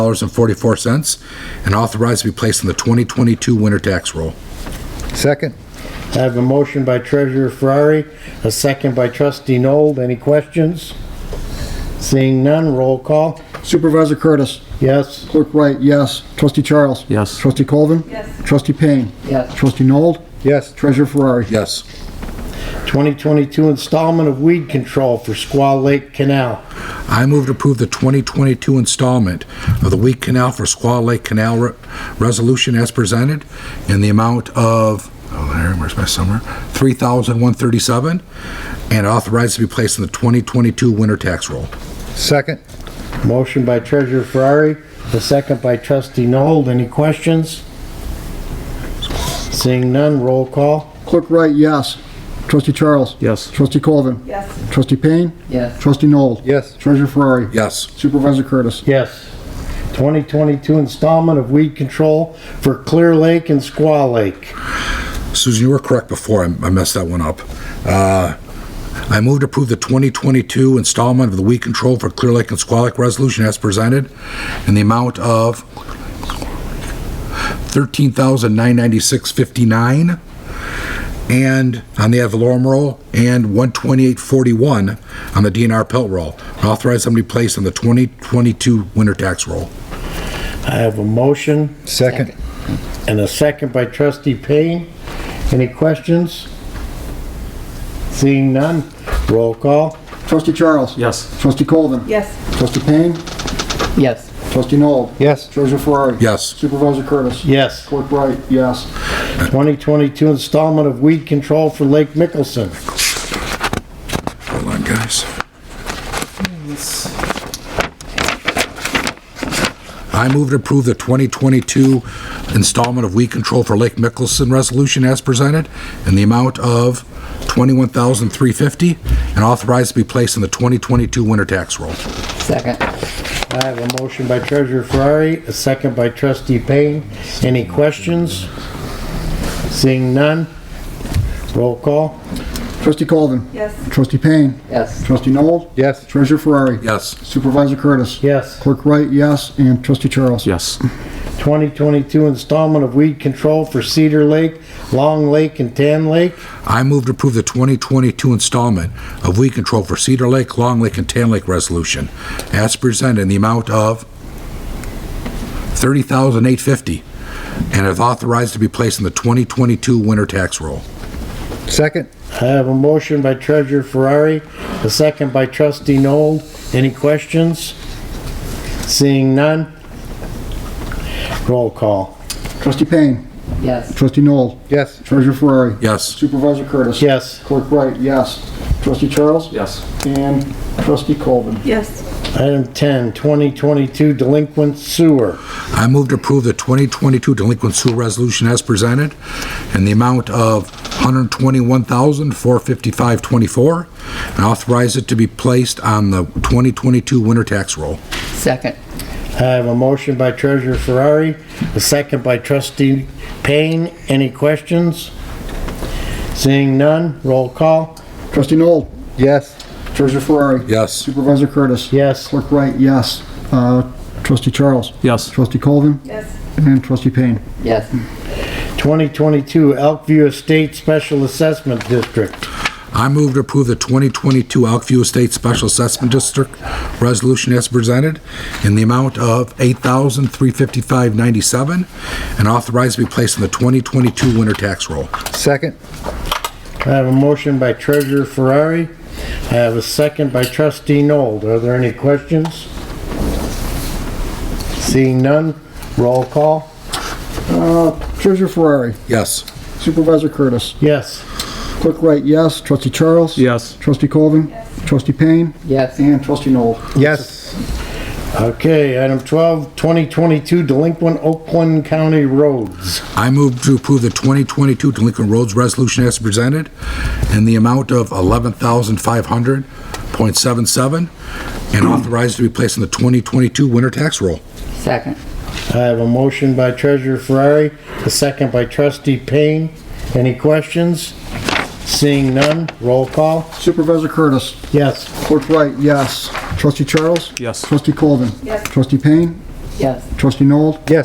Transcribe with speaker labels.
Speaker 1: dollars and forty-four cents, and authorized to be placed in the 2022 winter tax roll.
Speaker 2: Second.
Speaker 3: I have a motion by Treasurer Ferrari, a second by Trustee Nold. Any questions? Seeing none, roll call.
Speaker 4: Supervisor Curtis.
Speaker 3: Yes.
Speaker 4: Clerk Wright, yes. Trustee Charles.
Speaker 5: Yes.
Speaker 4: Trustee Colvin.
Speaker 6: Yes.
Speaker 4: Trustee Payne.
Speaker 3: Yes.
Speaker 4: Trustee Noel.
Speaker 2: Yes.
Speaker 4: Treasurer Ferrari.
Speaker 1: Yes.
Speaker 3: 2022 installment of weed control for Squaw Lake Canal.
Speaker 1: I move to approve the 2022 installment of the Weed Canal for Squaw Lake Canal Re- Resolution as presented in the amount of, oh, there, where's my summer? $3,137, and authorized to be placed in the 2022 winter tax roll.
Speaker 2: Second.
Speaker 3: Motion by Treasurer Ferrari, the second by Trustee Nold. Any questions? Seeing none, roll call.
Speaker 4: Clerk Wright, yes. Trustee Charles.
Speaker 5: Yes.
Speaker 4: Trustee Colvin.
Speaker 6: Yes.
Speaker 4: Trustee Payne.
Speaker 6: Yes.
Speaker 4: Trustee Noel.
Speaker 2: Yes.
Speaker 4: Treasurer Ferrari.
Speaker 1: Yes.
Speaker 4: Supervisor Curtis.
Speaker 3: Yes. 2022 installment of weed control for Clear Lake and Squaw Lake.
Speaker 1: Susan, you were correct before. I I messed that one up. Uh, I move to approve the 2022 installment of the weed control for Clear Lake and Squaw Lake Resolution as presented in the amount of $13,996.59 and on the ad valorem roll and 128.41 on the DNR pelt roll. Authorize them to be placed on the 2022 winter tax roll.
Speaker 3: I have a motion
Speaker 2: Second.
Speaker 3: and a second by Trustee Payne. Any questions? Seeing none, roll call.
Speaker 4: Trustee Charles.
Speaker 5: Yes.
Speaker 4: Trustee Colvin.
Speaker 6: Yes.
Speaker 4: Trustee Payne.
Speaker 6: Yes.
Speaker 4: Trustee Noel.
Speaker 2: Yes.
Speaker 4: Treasurer Ferrari.
Speaker 1: Yes.
Speaker 4: Supervisor Curtis.
Speaker 3: Yes.
Speaker 4: Clerk Wright, yes.
Speaker 3: 2022 installment of weed control for Lake Mickelson.
Speaker 1: Hold on, guys. I move to approve the 2022 installment of weed control for Lake Mickelson resolution as presented in the amount of $21,350 and authorized to be placed in the 2022 winter tax roll.
Speaker 6: Second.
Speaker 3: I have a motion by Treasurer Ferrari, a second by Trustee Payne. Any questions? Seeing none, roll call.
Speaker 4: Trustee Colvin.
Speaker 6: Yes.
Speaker 4: Trustee Payne.
Speaker 6: Yes.
Speaker 4: Trustee Noel.
Speaker 2: Yes.
Speaker 4: Treasurer Ferrari.
Speaker 1: Yes.
Speaker 4: Supervisor Curtis.
Speaker 3: Yes.
Speaker 4: Clerk Wright, yes. And Trustee Charles.
Speaker 5: Yes.
Speaker 3: 2022 installment of weed control for Cedar Lake, Long Lake, and Tan Lake.
Speaker 1: I move to approve the 2022 installment of weed control for Cedar Lake, Long Lake, and Tan Lake resolution as presented in the amount of $30,850 and is authorized to be placed in the 2022 winter tax roll.
Speaker 2: Second.
Speaker 3: I have a motion by Treasurer Ferrari, a second by Trustee Nold. Any questions? Seeing none, roll call.
Speaker 4: Trustee Payne.
Speaker 6: Yes.
Speaker 4: Trustee Noel.
Speaker 2: Yes.
Speaker 4: Treasurer Ferrari.
Speaker 1: Yes.
Speaker 4: Supervisor Curtis.
Speaker 3: Yes.
Speaker 4: Clerk Wright, yes. Trustee Charles.
Speaker 5: Yes.
Speaker 4: And Trustee Colvin.
Speaker 6: Yes.
Speaker 3: Item 10, 2022 delinquent sewer.
Speaker 1: I move to approve the 2022 delinquent sewer resolution as presented in the amount of $121,455.24 and authorize it to be placed on the 2022 winter tax roll.
Speaker 6: Second.
Speaker 3: I have a motion by Treasurer Ferrari, a second by Trustee Payne. Any questions? Seeing none, roll call.
Speaker 4: Trustee Noel.
Speaker 2: Yes.
Speaker 4: Treasurer Ferrari.
Speaker 1: Yes.
Speaker 4: Supervisor Curtis.
Speaker 3: Yes.
Speaker 4: Clerk Wright, yes. Uh, Trustee Charles.
Speaker 5: Yes.
Speaker 4: Trustee Colvin.
Speaker 6: Yes.
Speaker 4: And Trustee Payne.
Speaker 6: Yes.
Speaker 3: 2022 Elkview Estate Special Assessment District.
Speaker 1: I move to approve the 2022 Elkview Estate Special Assessment District Resolution as presented in the amount of $8,355.97 and authorized to be placed in the 2022 winter tax roll.
Speaker 2: Second.
Speaker 3: I have a motion by Treasurer Ferrari. I have a second by Trustee Nold. Are there any questions? Seeing none, roll call.
Speaker 4: Treasurer Ferrari.
Speaker 1: Yes.
Speaker 4: Supervisor Curtis.
Speaker 3: Yes.
Speaker 4: Clerk Wright, yes. Trustee Charles.
Speaker 5: Yes.
Speaker 4: Trustee Colvin. Trustee Payne.
Speaker 6: Yes.
Speaker 4: And Trustee Noel.
Speaker 2: Yes.
Speaker 3: Okay, item 12, 2022 delinquent Oakland County roads.
Speaker 1: I move to approve the 2022 Delinquent Roads Resolution as presented in the amount of $11,500.77 and authorized to be placed in the 2022 winter tax roll.
Speaker 6: Second.
Speaker 3: I have a motion by Treasurer Ferrari, a second by Trustee Payne. Any questions? Seeing none, roll call.
Speaker 4: Supervisor Curtis.
Speaker 3: Yes.
Speaker 4: Clerk Wright, yes. Trustee Charles.
Speaker 5: Yes.
Speaker 4: Trustee Colvin.
Speaker 6: Yes.
Speaker 4: Trustee Payne.
Speaker 6: yes.
Speaker 4: Trustee Noel?